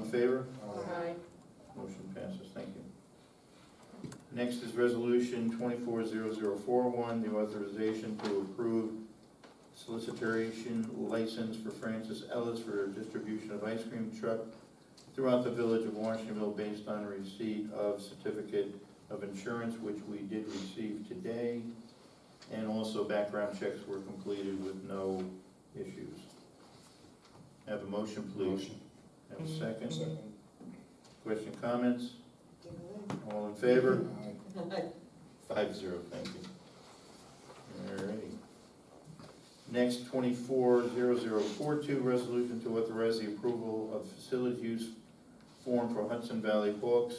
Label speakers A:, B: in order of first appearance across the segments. A: favor?
B: Aye.
A: Motion passes, thank you. Next is Resolution 240041, the authorization to approve solicitation license for Francis Ellis for distribution of ice cream truck throughout the village of Washingtonville based on receipt of certificate of insurance, which we did receive today, and also background checks were completed with no issues. Have a motion, please. Have a second?
C: Second.
A: Question, comments? All in favor?
C: Aye.
A: Five zero, thank you. All righty. Next, twenty-four zero zero four two, resolution to authorize the approval of facility use form for Hudson Valley Hawks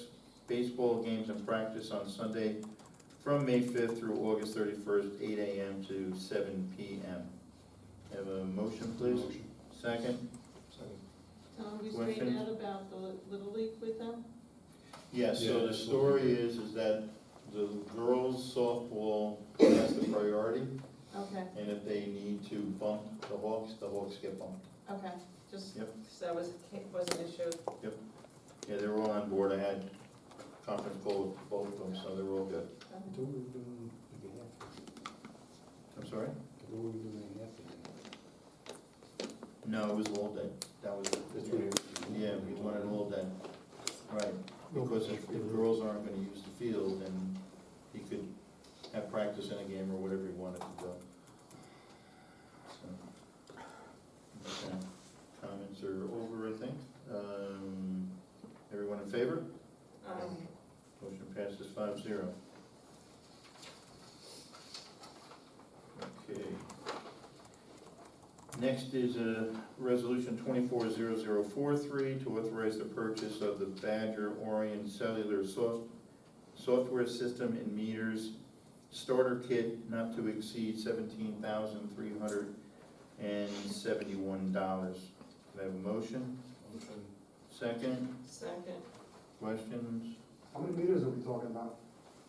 A: baseball games and practice on Sunday from May fifth through August thirty-first, eight AM to seven PM. Have a motion, please?
C: Motion.
A: Second?
C: Second.
B: Tom, you
A: Questions?
B: straighten out about the Little League with them?
A: Yes, so
C: Yeah.
A: the story is, is that the girls softball has the priority.
B: Okay,
A: And if they need to bump the Hawks, the Hawks get bumped.
B: okay, just,
A: Yep.
B: because that was, was an issue.
A: Yeah, they were all on board, I had conference call with both of them, so they were all good.
C: Do what we're doing with the Hampton.
A: I'm sorry?
C: Do what we're doing in Hampton.
A: No, it was all day, that was,
C: That's what it-
A: yeah, we wanted all day. Right, because if, if girls aren't gonna use the field, then he could have practice in a game or whatever he wanted to do. So, okay. Comments are over, I think. Um, everyone in favor?
B: Um,
A: Motion passes five zero. Okay. Next is a resolution twenty-four zero zero four three to authorize the purchase of the Badger Orion Cellular Soft, Software System and Meters Starter Kit not to exceed seventeen thousand three hundred and seventy-one dollars. Can I have a motion?
C: Motion.
A: Second,
B: Second,
A: questions?
D: How many meters are we talking about?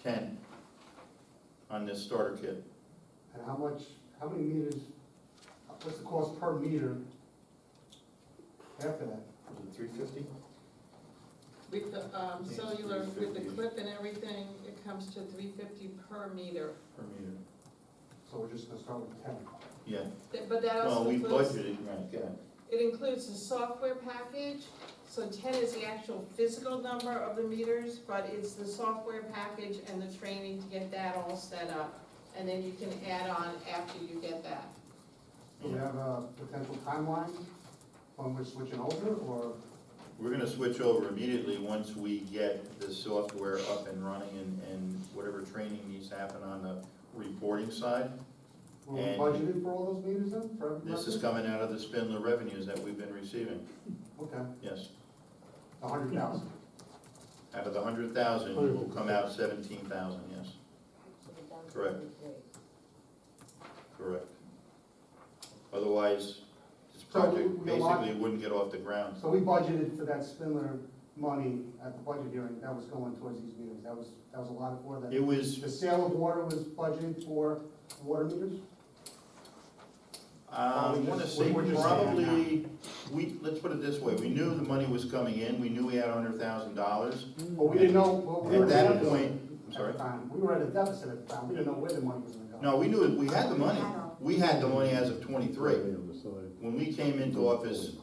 A: ten on this starter kit.
D: And how much, how many meters, what's the cost per meter after that?
A: Was it three fifty?
B: with the um,
A: Yes,
B: cellular, with the
A: 350.
B: clip and everything, it comes to three fifty per meter.
A: Per meter.
D: So we're just gonna start with ten.
A: Yeah,
B: Th- But that
A: well,
B: also
A: we
B: includes,
A: budgeted, right, yeah,
B: it includes the software package, so ten is the actual physical number of the meters, but it's the software package and the training to get that all set up. And then you can add on after you get that.
D: Do we have a potential timeline on which switching over, or
A: We're gonna switch over immediately once we get the software up and running and, and whatever training needs to happen on the reporting side.
D: were we
A: And-
D: budgeted for all those meters then, for every
A: This is
D: resident?
A: coming out of the Spindler revenues that we've been receiving,
D: Okay,
A: yes.
D: a hundred thousand.
A: Out of the hundred thousand, will come out seventeen thousand, yes, Correct. correct. Otherwise, this
D: So we-
A: project
D: we allot-
A: basically wouldn't get off the ground.
D: So we budgeted for that Spindler money at the budget hearing, that was going towards these meters, that was, that was a lot for that.
A: It was
D: The sale of water was budgeted for water meters?
A: I
D: Or we
A: want to
D: just-
A: um, say
D: we're just saying it now.
A: probably, we, let's put it this way, we knew the money was coming in, we knew we had hundred thousand dollars.
D: But we didn't know what we were.
A: At that
D: doing.
A: point, I'm
D: at the
A: sorry,
D: time. We were at a deficit at the time, we didn't know where the money was gonna go.
A: no, we knew, it. we had the money, we had the money as of twenty-three. When we came into office,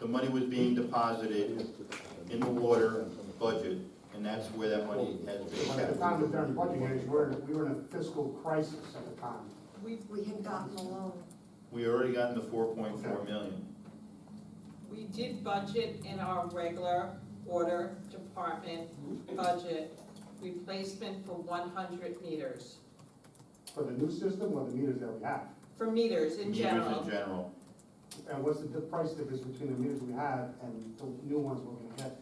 A: the money was being deposited in the water budget, and that's where that money has been
D: But at the
A: kept.
D: time, during budget hearings, we were, we were in a fiscal crisis at the time.
B: We,
E: We had gotten a loan.
A: We already gotten the four point four million,
B: we did budget in our regular order department budget, replacement for one hundred meters,
D: For the new system or the meters that we have?
B: for meters in
A: meters
B: general.
A: in general.
D: And what's the di- price difference between the meters we have and the new ones we're gonna get?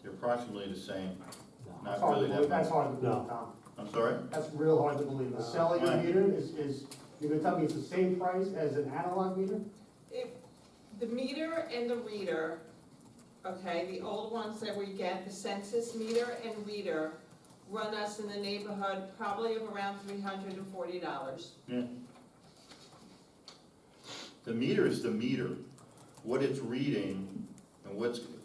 A: They're approximately the same,
D: It's
A: not
D: hard to
A: really that
D: believe- Oh, That's
A: much. Uh,
D: hard to
C: No.
D: believe, Tom.
A: I'm sorry?
D: That's real hard to believe. The cellular
A: Why?
D: meter is, is, you're gonna tell me it's the same price as an analog meter?
B: If, the meter and the reader, okay, the old ones that we get, the census meter and reader, run us in the neighborhood probably of around three hundred and forty dollars.
A: The meter is the meter. What it's reading and what's